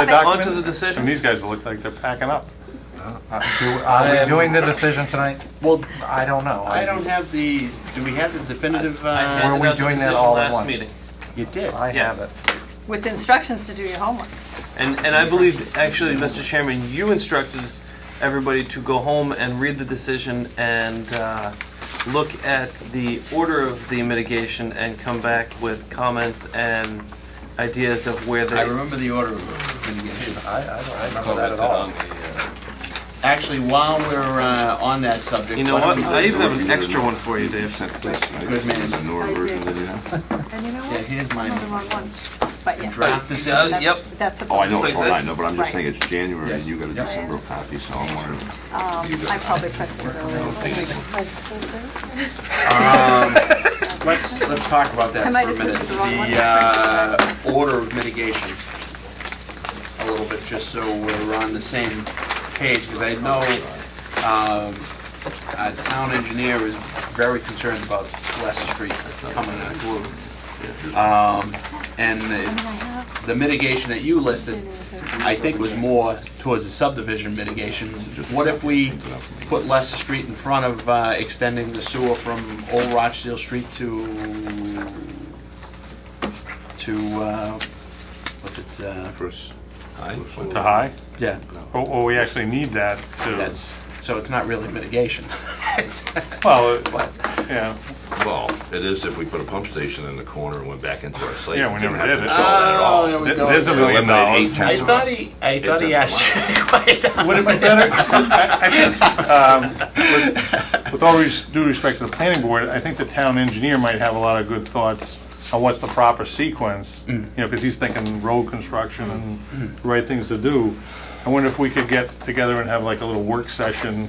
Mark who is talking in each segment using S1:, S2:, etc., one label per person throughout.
S1: the
S2: comment.
S1: document.
S3: Onto the decision.
S1: And these guys look like they're packing up.
S4: Uh, do- Are
S3: I
S4: we
S3: am-
S4: doing the decision tonight?
S3: Well,
S4: I don't know.
S3: I don't have the, do we have the definitive?
S5: I
S3: uh,
S5: handed
S4: Were we
S5: out the
S4: doing that
S5: decision
S4: all in
S5: last
S4: one?
S5: meeting.
S3: You did.
S4: I have
S5: Yes.
S4: it.
S2: With instructions to do your homework.
S5: And, and I believe, actually, Mr. Chairman, you instructed everybody to go home and read the decision and uh, look at the order of the mitigation and come back with comments and ideas of where
S3: I
S5: they,
S3: remember the order of litigation.
S4: I, I don't remember that at Oh,
S3: um,
S4: all.
S3: Actually, while we're uh, on that subject.
S5: you know
S3: why don't
S5: what?
S3: we-
S5: I even have an extra one for you, Dave.
S3: Good man.
S2: And you know
S3: Yeah,
S2: what?
S3: here's mine.
S2: No, the wrong one. But yeah.
S3: Draft this
S5: Uh,
S3: out.
S2: that's-
S5: yep.
S2: That's a.
S6: Oh, I know it's
S5: Like
S6: all right,
S5: this?
S6: no, but I'm just
S2: Right.
S6: saying it's January and you got a
S3: Yes.
S6: December copy, so I'm wondering.
S2: Um, I probably pressed it earlier.
S3: Um, Let's, let's talk about that
S2: I
S3: for
S2: might
S3: a
S2: have
S3: minute.
S2: put the wrong one.
S3: The uh, order of mitigation, a little bit, just so we're on the same page, because I know um, our town engineer is very concerned about Leicester Street coming through. Um, And it's, the mitigation that you listed, I think was more towards the subdivision mitigation. What if we put Leicester Street in front of uh, extending the sewer from Old Rochdale Street to, to, uh, what's it, uh,
S6: First.
S1: To high?
S3: yeah,
S1: Oh, oh, we actually need that to,
S3: that's, so it's not really mitigation. It's-
S1: well, it-
S3: But
S1: yeah,
S7: Well, it is if we put a pump station in the corner and went back into our slate.
S1: Yeah, we never
S7: Didn't have to
S1: did it.
S7: install that at all.
S3: Oh, yeah, we-
S1: Th- there's a million
S7: Eliminate
S1: dollars.
S7: eight
S3: I thought he, I thought he asked you to quiet down.
S1: Would it be better, I I think, um, with- with all res- due respect to the planning board, I think the town engineer might have a lot of good thoughts on what's the proper sequence,
S3: Mm.
S1: you know, because he's thinking road construction and the right things to do. I wonder if we could get together and have like a little work session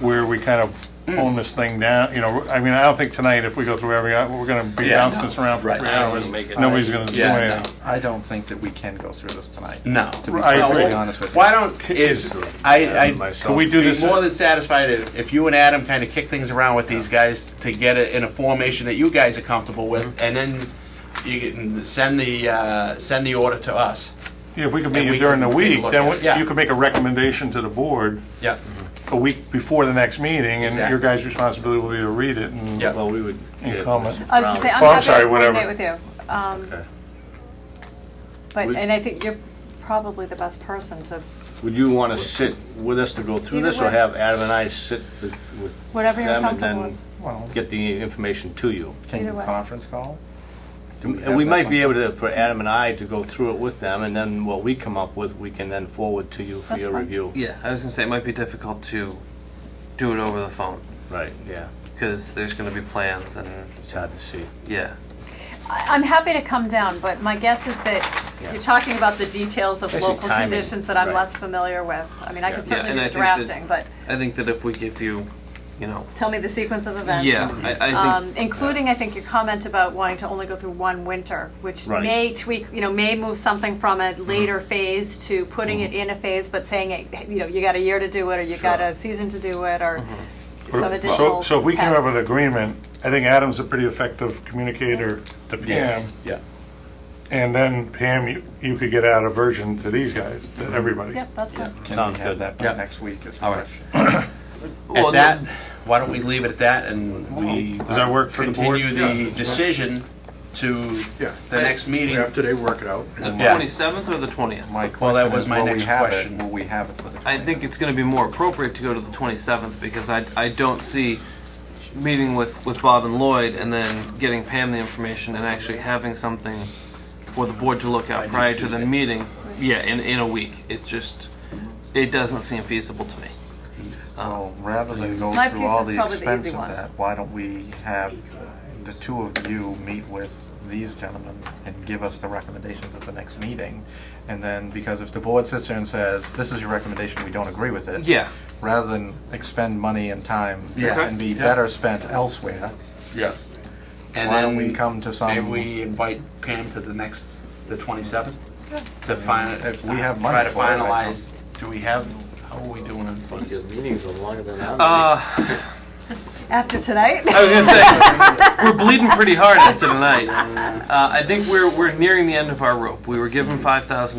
S1: where we kind of
S3: Mm.
S1: hone this thing down, you know, I mean, I don't think tonight, if we go through every, we're gonna be
S3: Yeah,
S1: bouncing
S3: no,
S1: this around for
S3: right.
S1: three
S3: I don't
S1: hours.
S5: wanna make it-
S1: Nobody's gonna do
S3: Yeah, no.
S1: anything.
S4: I don't think that we can go through this tonight.
S3: No.
S4: To be
S1: I
S4: perfectly
S1: agree.
S4: honest with you.
S3: Why don't, is, I, I,
S1: Can we do
S3: be
S1: this?
S3: more than satisfied if, if you and Adam kind of kick things around with these guys to get it in a formation that you guys are comfortable with, and then you can send the uh, send the order to us.
S1: Yeah, if we could
S3: And
S1: meet
S3: we
S1: you during the
S3: can- we can
S1: week,
S3: look
S1: then
S3: at it, yeah.
S1: we- you could make a recommendation to the board
S3: Yep.
S1: a week before the next meeting, and your
S3: Exactly.
S1: guys' responsibility will be to read it and
S3: Yeah.
S7: Well, we would.
S1: and comment.
S2: I was gonna say, I'm
S1: Oh, I'm
S2: happy
S1: sorry,
S2: to coordinate
S1: whatever.
S2: with you. Um,
S7: Okay.
S2: But,
S8: We-
S2: and I think you're probably the best person to,
S8: Would you want to sit with us to go through
S2: Either
S8: this, or
S2: way.
S8: have Adam and I sit with with
S2: whatever you're
S8: them and
S2: comfortable with.
S8: then
S4: Well,
S8: get the information to you?
S4: can you
S2: Either way.
S4: conference call? Do have
S8: And we
S4: that
S8: might be
S4: one?
S8: able to, for Adam and I to go through it with them, and then what we come up with, we can then forward to you for
S2: That's
S8: your
S2: fine.
S8: review.
S5: Yeah, I was gonna say, it might be difficult to do it over the phone,
S8: Right, yeah,
S5: because there's gonna be plans and,
S8: it's hard to see.
S5: yeah.
S2: I- I'm happy to come down, but my guess is that
S8: Yeah.
S2: you're talking about the details of
S8: Especially
S2: local
S8: timing,
S2: conditions that I'm
S8: right.
S2: less familiar with. I mean, I could
S5: Yeah, and
S2: certainly do
S5: I
S2: the
S5: think that-
S2: drafting, but
S5: I think that if we give you, you know,
S2: tell me the sequence of events.
S5: Yeah, I, I
S2: Um,
S5: think.
S2: Including, I think, your comment about wanting to only go through one winter, which
S8: Right.
S2: may tweak, you know, may move something from a
S5: Mm-hmm.
S2: later phase to putting it in a phase, but saying, it, you know, you got a year to do it, or you got a season to do it, or
S5: Mm-hmm.
S2: some
S1: So,
S2: additional
S1: so if we came up with an
S2: text.
S1: agreement, I think Adam's a pretty effective communicator to Pam,
S3: Yeah.
S1: and then Pam, you, you could get out a version to these guys, to
S3: Mm-hmm.
S1: everybody.
S2: Yep, that's fine.
S4: Can
S8: Sounds
S4: we have
S8: good.
S4: that by
S3: Yeah.
S4: next week is the
S3: All right.
S4: question.
S5: Well,
S3: At that, why don't we leave it at that and we
S1: Does that work for the board?
S3: continue the decision to
S9: Yeah.
S3: the next meeting?
S9: After they work it out.
S5: The
S3: Yeah.
S5: twenty-seventh or the twentieth?
S4: My
S3: Well, that
S4: question
S3: was
S4: is,
S3: my
S4: will we
S3: next
S4: have it-
S3: question.
S4: Will we have it for the
S5: I think it's gonna be more appropriate to go to the twenty-seventh, because I, I don't see meeting with, with Bob and Lloyd and then getting Pam the information and actually having something for the board to look at prior to the meeting, yeah, in, in a week. It just, it doesn't seem feasible to me.
S4: Well, rather than go
S2: My
S4: through
S2: piece
S4: all
S2: is
S4: the
S2: probably the
S4: expense
S2: easy
S4: of
S2: one.
S4: that, why don't we have the two of you meet with these gentlemen and give us the recommendations at the next meeting? And then, because if the board sits there and says, this is your recommendation, we don't agree with it.
S5: Yeah.
S4: Rather than expend money and time
S3: Yeah.
S4: and be
S3: Yeah.
S4: better spent elsewhere,
S3: Yeah. And
S4: Why don't
S3: then
S4: we come to some-
S3: Maybe we invite Pam to the next, the 27th? To find,
S4: if we have money
S3: Try to
S4: for it, I
S3: finalize, do we have, how are we doing on funds?
S8: meetings are longer than
S5: Uh,
S2: After tonight?
S5: I was gonna say we're bleeding pretty hard after tonight. Uh, I think we're we're nearing the end of our rope. We were given five thousand